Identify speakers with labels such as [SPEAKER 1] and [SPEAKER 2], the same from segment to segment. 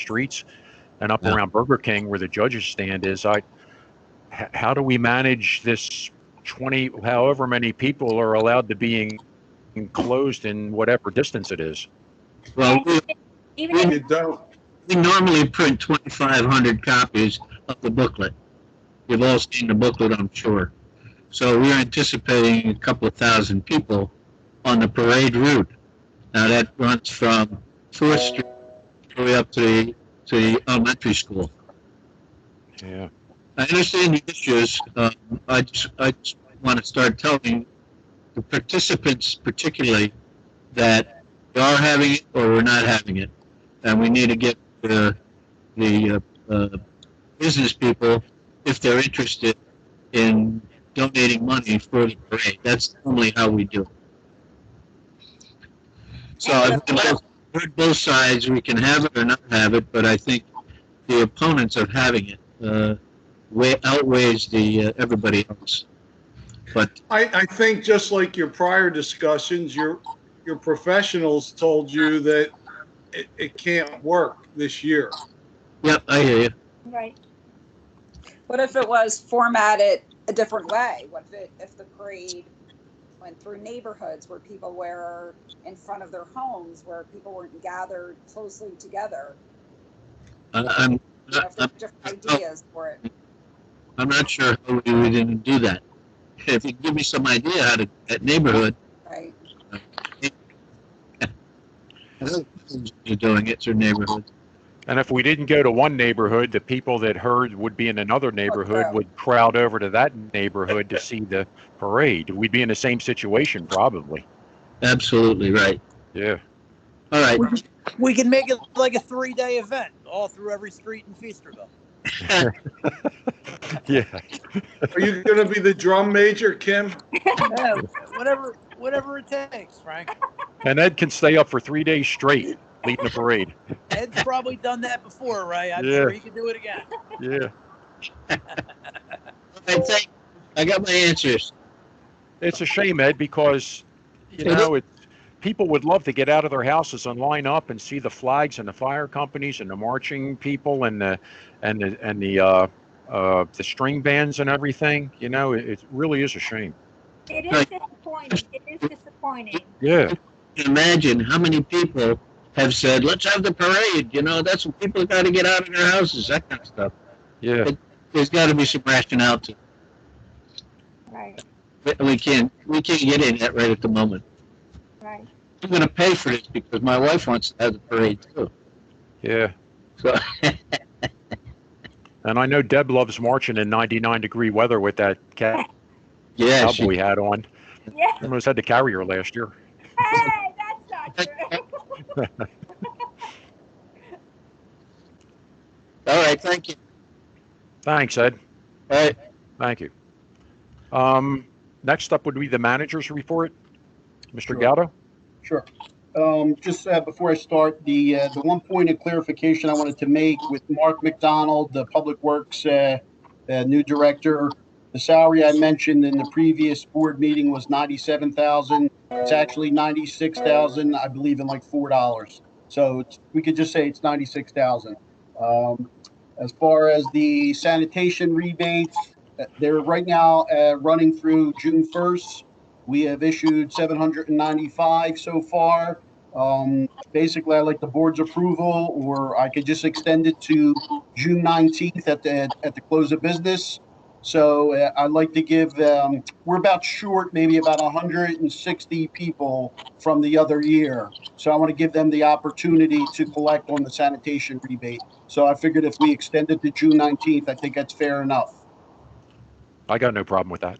[SPEAKER 1] streets and up
[SPEAKER 2] Yeah.
[SPEAKER 1] around Burger King where the judges stand is. I, h- how do we manage this 20, however many people are allowed to be en- enclosed in whatever distance it is?
[SPEAKER 3] Well, we-
[SPEAKER 4] Even if
[SPEAKER 3] we,
[SPEAKER 5] You don't,
[SPEAKER 3] we normally print 2,500 copies of the booklet. You've all seen the booklet, I'm sure. So we're anticipating a couple of thousand people on the parade route. Now that runs from Fourth Street all the way up to the, to the elementary school.
[SPEAKER 1] Yeah.
[SPEAKER 3] I understand the issues. Um, I just, I just want to start telling the participants particularly that we are having it or we're not having it. And we need to get the, the uh, uh, business people, if they're interested in donating money for the parade. That's normally how we do it. So I've heard both- heard both sides. We can have it or not have it, but I think the opponents of having it uh, way outweighs the uh, everybody else. But
[SPEAKER 5] I, I think just like your prior discussions, your, your professionals told you that it, it can't work this year.
[SPEAKER 3] yep, I hear you.
[SPEAKER 4] right,
[SPEAKER 6] What if it was formatted a different way? What if it, if the parade went through neighborhoods where people were in front of their homes, where people weren't gathered closely together?
[SPEAKER 3] I, I'm
[SPEAKER 6] You know, if there
[SPEAKER 3] I'm,
[SPEAKER 6] were different
[SPEAKER 3] uh,
[SPEAKER 6] ideas for it.
[SPEAKER 3] I'm not sure how we would even do that. If you give me some idea how to that neighborhood
[SPEAKER 6] Right.
[SPEAKER 3] you're doing it, it's your neighborhood.
[SPEAKER 1] And if we didn't go to one neighborhood, the people that heard would be in another neighborhood
[SPEAKER 6] crowd.
[SPEAKER 1] would crowd over to that neighborhood to see the parade. We'd be in the same situation probably.
[SPEAKER 3] Absolutely right.
[SPEAKER 1] Yeah.
[SPEAKER 3] All right.
[SPEAKER 7] We can make it like a three-day event, all through every street in Feasterville.
[SPEAKER 1] Yeah.
[SPEAKER 5] Are you gonna be the drum major, Kim?
[SPEAKER 7] Yeah, whatever, whatever it takes, Frank.
[SPEAKER 1] And Ed can stay up for three days straight leading the parade.
[SPEAKER 7] Ed's probably done that before, right? I'm
[SPEAKER 1] Yeah.
[SPEAKER 7] sure he can do it again.
[SPEAKER 1] Yeah.
[SPEAKER 3] I think I got my answers.
[SPEAKER 1] It's a shame, Ed, because, you
[SPEAKER 3] It
[SPEAKER 1] know, it, people would love to get out of their houses and line up and see the flags and the fire companies and the marching people and the, and the, and the, uh, uh, the string bands and everything, you know, it, it really is a shame.
[SPEAKER 4] it is disappointing, it is disappointing.
[SPEAKER 1] Yeah.
[SPEAKER 3] Imagine how many people have said, "Let's have the parade." You know, that's what people got to get out of their houses. That kind of stuff.
[SPEAKER 1] Yeah.
[SPEAKER 3] There's got to be some rationale to.
[SPEAKER 4] Right,
[SPEAKER 3] it. We can't. We can't get in that right at the moment.
[SPEAKER 4] right.
[SPEAKER 3] I'm going to pay for this because my wife wants to have the parade too.
[SPEAKER 1] Yeah.
[SPEAKER 3] So
[SPEAKER 1] And I know Deb loves marching in 99 degree weather with that cat
[SPEAKER 3] yeah, she,
[SPEAKER 1] cowboy hat on.
[SPEAKER 4] Yeah,
[SPEAKER 1] Almost had to carry her last year.
[SPEAKER 4] hey, that's not true.
[SPEAKER 3] all right. Thank you.
[SPEAKER 1] Thanks, Ed.
[SPEAKER 3] All right.
[SPEAKER 1] Thank you. Um, next up would be the manager's report. Mr.
[SPEAKER 8] Sure.
[SPEAKER 1] Gatto?
[SPEAKER 8] Sure. Um, Just uh, before I start, the, uh, the one point of clarification I wanted to make with Mark McDonald, the Public Works uh, uh, new director, the salary I mentioned in the previous board meeting was ninety-seven thousand. It's actually ninety-six thousand, I believe in like four dollars. So it's- we could just say it's ninety-six thousand. Um, As far as the sanitation rebates, uh, they're right now uh, running through June first. We have issued 795 so far. Um, Basically, I like the board's approval, or I could just extend it to June 19th at the, at the close of business. So uh, I'd like to give, um, we're about short, maybe about 160 people from the other year. So I want to give them the opportunity to collect on the sanitation rebate. So I figured if we extend it to June 19th, I think that's fair enough.
[SPEAKER 1] I got no problem with that.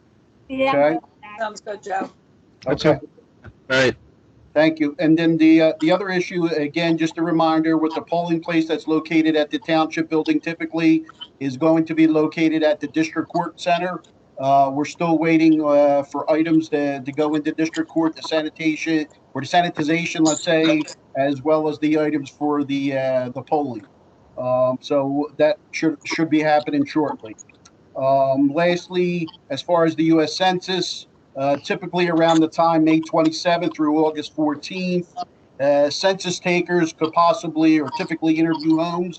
[SPEAKER 4] Yeah.
[SPEAKER 6] Sounds good, Joe.
[SPEAKER 3] All
[SPEAKER 8] Okay.
[SPEAKER 3] right.
[SPEAKER 8] Thank you. And then the, uh, the other issue, again, just a reminder, with the polling place that's located at the township building typically is going to be located at the district court center. Uh, we're still waiting, uh, for items to, to go into district court, the sanitation, or the sanitization, let's say, as well as the items for the, uh, the polling. Um, so that should, should be happening shortly. Um, lastly, as far as the US Census, uh, typically around the time, May 27th through August 14th. uh, census takers could possibly or typically interview homes.